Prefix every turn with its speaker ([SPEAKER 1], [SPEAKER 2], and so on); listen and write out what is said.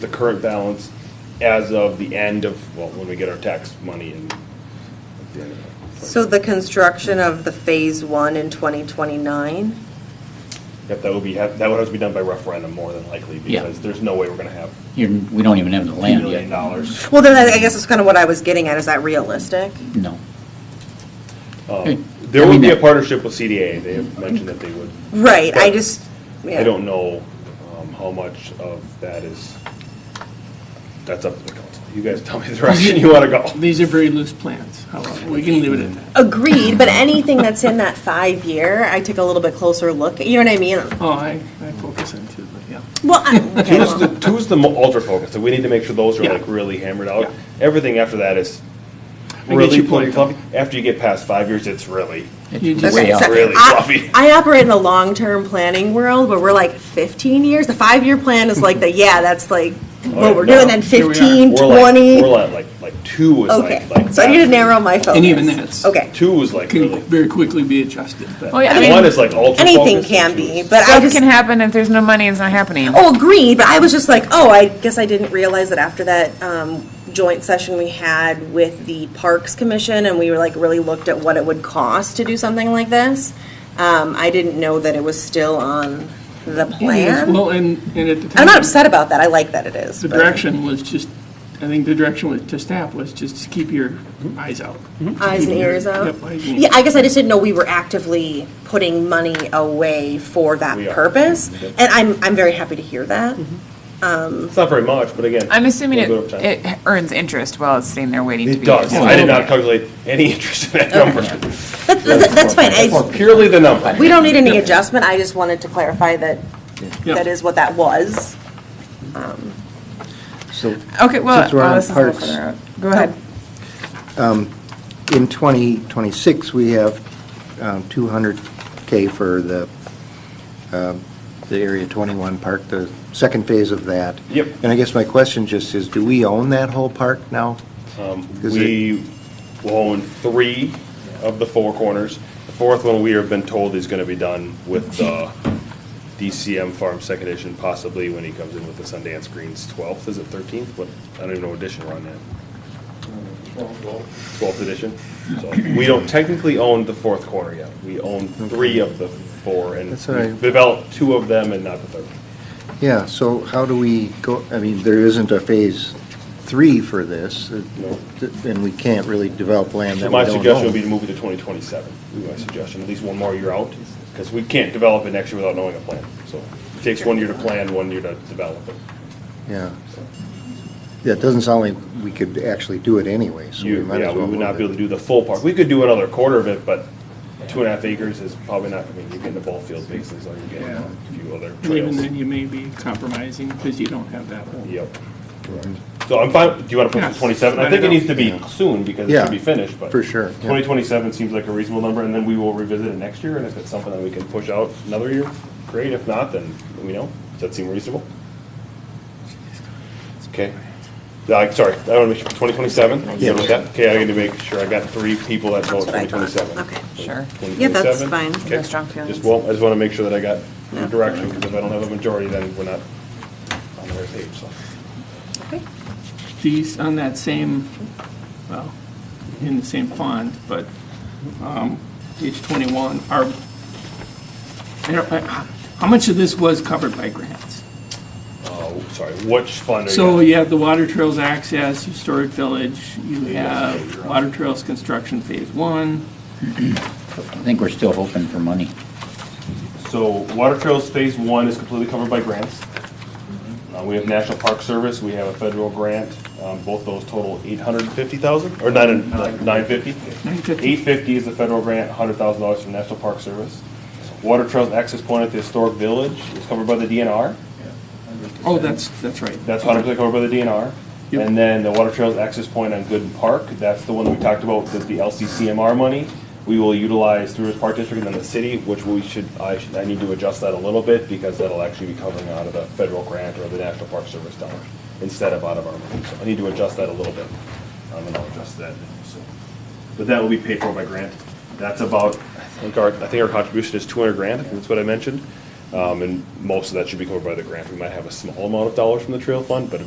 [SPEAKER 1] the current balance as of the end of, well, when we get our tax money and. at the end of it.
[SPEAKER 2] So the construction of the Phase One in 2029?
[SPEAKER 1] Yep, that would be, that would have to be done by referendum more than likely,
[SPEAKER 3] Yeah.
[SPEAKER 1] because there's no way we're gonna have
[SPEAKER 3] You're, we don't even have the
[SPEAKER 1] two
[SPEAKER 3] land yet.
[SPEAKER 1] million dollars.
[SPEAKER 2] Well, then I I guess that's kind of what I was getting at, is that realistic?
[SPEAKER 3] No. Okay.
[SPEAKER 1] Um, There
[SPEAKER 3] I
[SPEAKER 1] would
[SPEAKER 3] mean,
[SPEAKER 1] be a
[SPEAKER 3] that-
[SPEAKER 1] partnership with CDA, they have mentioned that they would,
[SPEAKER 2] Right, I just, yeah.
[SPEAKER 1] I don't know um, how much of that is, that's up to the council. You guys tell me the direction you wanna go.
[SPEAKER 4] These are very loose plans, however, we can leave it at that.
[SPEAKER 2] Agreed, but anything that's in that five-year, I take a little bit closer look, you know what I mean?
[SPEAKER 4] Oh, I, I focus on two, but yeah.
[SPEAKER 2] Well, I- okay,
[SPEAKER 1] Two's the,
[SPEAKER 2] well,
[SPEAKER 1] two's the mo- ultra focus, so we need to make sure those are
[SPEAKER 4] Yeah.
[SPEAKER 1] like really hammered out.
[SPEAKER 4] Yeah.
[SPEAKER 1] Everything after that is
[SPEAKER 4] I get
[SPEAKER 1] really
[SPEAKER 4] your
[SPEAKER 1] pretty
[SPEAKER 4] point, though.
[SPEAKER 1] fluffy. After you get past five years, it's really.
[SPEAKER 4] You
[SPEAKER 3] It's
[SPEAKER 4] just-
[SPEAKER 3] way
[SPEAKER 2] okay,
[SPEAKER 3] out.
[SPEAKER 2] so
[SPEAKER 1] Really
[SPEAKER 2] I-
[SPEAKER 1] fluffy.
[SPEAKER 2] I operate in a long-term planning world, but we're like 15 years, the five-year plan is like the, yeah, that's like
[SPEAKER 1] yeah,
[SPEAKER 2] what we're doing,
[SPEAKER 1] no,
[SPEAKER 2] then
[SPEAKER 4] here we are.
[SPEAKER 2] 15,
[SPEAKER 1] We're like,
[SPEAKER 2] 20.
[SPEAKER 1] we're like, like, like two is
[SPEAKER 2] Okay,
[SPEAKER 1] like, like.
[SPEAKER 2] so I need to
[SPEAKER 1] that.
[SPEAKER 2] narrow my focus.
[SPEAKER 4] And even that's-
[SPEAKER 2] Okay.
[SPEAKER 1] Two is like
[SPEAKER 4] Can
[SPEAKER 1] really.
[SPEAKER 4] very quickly be adjusted, but.
[SPEAKER 5] Oh, yeah, I mean,
[SPEAKER 1] One is like ultra focus.
[SPEAKER 2] Anything can
[SPEAKER 1] and two
[SPEAKER 2] be,
[SPEAKER 1] is-
[SPEAKER 2] but I
[SPEAKER 5] Stuff
[SPEAKER 2] just,
[SPEAKER 5] can happen if there's no money, it's not happening.
[SPEAKER 2] oh, agreed, but I was just like, oh, I guess I didn't realize that after that um, joint session we had with the Parks Commission, and we were like, really looked at what it would cost to do something like this, um, I didn't know that it was still on the plan.
[SPEAKER 4] Well, and, and at the time.
[SPEAKER 2] I'm not upset about that, I like that it is.
[SPEAKER 4] The
[SPEAKER 2] but-
[SPEAKER 4] direction was just, I think the direction was to staff was just to keep your eyes out.
[SPEAKER 2] Eyes and ears out?
[SPEAKER 4] Yep, eyes and
[SPEAKER 2] Yeah,
[SPEAKER 4] ears.
[SPEAKER 2] I guess I just didn't know we were actively putting money away for that
[SPEAKER 1] We are.
[SPEAKER 2] purpose, and I'm, I'm very happy to hear that.
[SPEAKER 4] Mm-hmm.
[SPEAKER 1] It's not very much, but again.
[SPEAKER 5] I'm assuming
[SPEAKER 1] a
[SPEAKER 5] it,
[SPEAKER 1] little bit of time.
[SPEAKER 5] it earns interest while it's sitting there waiting to be.
[SPEAKER 1] It does,
[SPEAKER 5] used.
[SPEAKER 1] I did not calculate any interest in that number.
[SPEAKER 2] That- that- That's fine, I,
[SPEAKER 1] Purely the number.
[SPEAKER 2] We don't need any adjustment, I just wanted to clarify that
[SPEAKER 4] Yeah.
[SPEAKER 2] that is what that was.
[SPEAKER 6] So
[SPEAKER 5] Okay, well,
[SPEAKER 6] Since we're
[SPEAKER 5] oh,
[SPEAKER 6] on
[SPEAKER 5] this is a little
[SPEAKER 6] parks.
[SPEAKER 5] further out. Go ahead.
[SPEAKER 6] in 2026, we have um, 200K for the, um, the Area 21 park, the second phase of that.
[SPEAKER 1] Yep.
[SPEAKER 6] And I guess my question just is, do we own that whole park now? Is
[SPEAKER 1] Um,
[SPEAKER 6] it-
[SPEAKER 1] We own three of the four corners. The fourth one, we have been told is gonna be done with the DCM Farm Second Edition, possibly when he comes in with the Sundance Greens twelfth, is it thirteenth? What, I don't even know what edition we're on now. Twelfth edition. So we don't technically own the fourth corner yet. We own three of the four and
[SPEAKER 6] That's all right.
[SPEAKER 1] we've developed two of them and not the third.
[SPEAKER 6] Yeah, so how do we go, I mean, there isn't a phase three for this, uh, and we can't really develop land that we
[SPEAKER 1] My
[SPEAKER 6] don't
[SPEAKER 1] suggestion would be
[SPEAKER 6] own.
[SPEAKER 1] to move it to twenty twenty-seven, would be my suggestion, at least one more year out, because we can't develop it next year without knowing a plan. So it takes one year to plan, one year to develop it.
[SPEAKER 6] Yeah. Yeah, it doesn't sound like we could actually do it anyway, so we
[SPEAKER 1] You,
[SPEAKER 6] might
[SPEAKER 1] yeah,
[SPEAKER 6] as
[SPEAKER 1] we
[SPEAKER 6] well
[SPEAKER 1] would not
[SPEAKER 6] move
[SPEAKER 1] be able
[SPEAKER 6] it.
[SPEAKER 1] to do the full park. We could do another quarter of it, but two and a half acres is probably not, I mean, you're getting the ball field basically, so you're getting
[SPEAKER 4] Yeah.
[SPEAKER 1] a few other
[SPEAKER 4] And even
[SPEAKER 1] trails.
[SPEAKER 4] then, you may be compromising because you don't have that whole.
[SPEAKER 1] Yep. So I'm fine, do you want to put it
[SPEAKER 4] Yes.
[SPEAKER 1] to twenty-seven? I
[SPEAKER 4] Let
[SPEAKER 1] think
[SPEAKER 4] it
[SPEAKER 1] it
[SPEAKER 4] out.
[SPEAKER 1] needs to be soon, because it
[SPEAKER 6] Yeah,
[SPEAKER 1] should be finished, but.
[SPEAKER 6] for sure, yeah.
[SPEAKER 1] Twenty twenty-seven seems like a reasonable number, and then we will revisit it next year, and if it's something that we can push out another year, great, if not, then we know. Does that seem reasonable? Okay. Like, sorry, I want to make sure, twenty twenty-seven?
[SPEAKER 6] Yeah.
[SPEAKER 1] Okay, I need to make sure, I got three people that vote
[SPEAKER 2] what I
[SPEAKER 1] twenty
[SPEAKER 2] thought.
[SPEAKER 1] twenty-seven.
[SPEAKER 2] Okay.
[SPEAKER 5] Sure.
[SPEAKER 2] Yeah, that's fine.
[SPEAKER 5] No strong feelings.
[SPEAKER 1] Just, well, I just want to make sure that I got
[SPEAKER 2] Yeah.
[SPEAKER 1] your direction, because if I don't have a majority, then we're not on the right page, so.
[SPEAKER 4] These, on that same, well, in the same font, but um, page 21, are, I don't- I- how much of this was covered by grants?
[SPEAKER 1] Oh, sorry, which fund are you?
[SPEAKER 4] So you have the Water Trails Access, you Historic Village, you have Water Trails Construction Phase One.
[SPEAKER 3] I think we're still hoping for money.
[SPEAKER 1] So Water Trails Phase One is completely covered by grants.
[SPEAKER 5] Mm-hmm.
[SPEAKER 1] Uh, We have National Park Service, we have a federal grant, um, both those total eight hundred and fifty thousand, or nine, nine fifty?
[SPEAKER 4] $950,000.
[SPEAKER 1] Eight fifty is the federal grant, hundred thousand dollars from National Park Service. Water Trails Access Point at the Historic Village is covered by the DNR,
[SPEAKER 4] Oh, that's, that's right.
[SPEAKER 1] that's hundred percent covered by the DNR.
[SPEAKER 4] Yep.
[SPEAKER 1] And then the Water Trails Access Point on Gooden Park, that's the one that we talked about, that's the LCCMR money. We will utilize through this park district and then the city, which we should, I should, I need to adjust that a little bit because that'll actually be covering out of the federal grant or the National Park Service dollars instead of out of our money. So I need to adjust that a little bit. I'm gonna adjust that, so. But that will be paid for by grant. That's about, I think our, I think our contribution is two hundred grand, I think that's what I mentioned. Um, and most of that should be covered by the grant. We might have a small amount of dollars from the trail fund, but a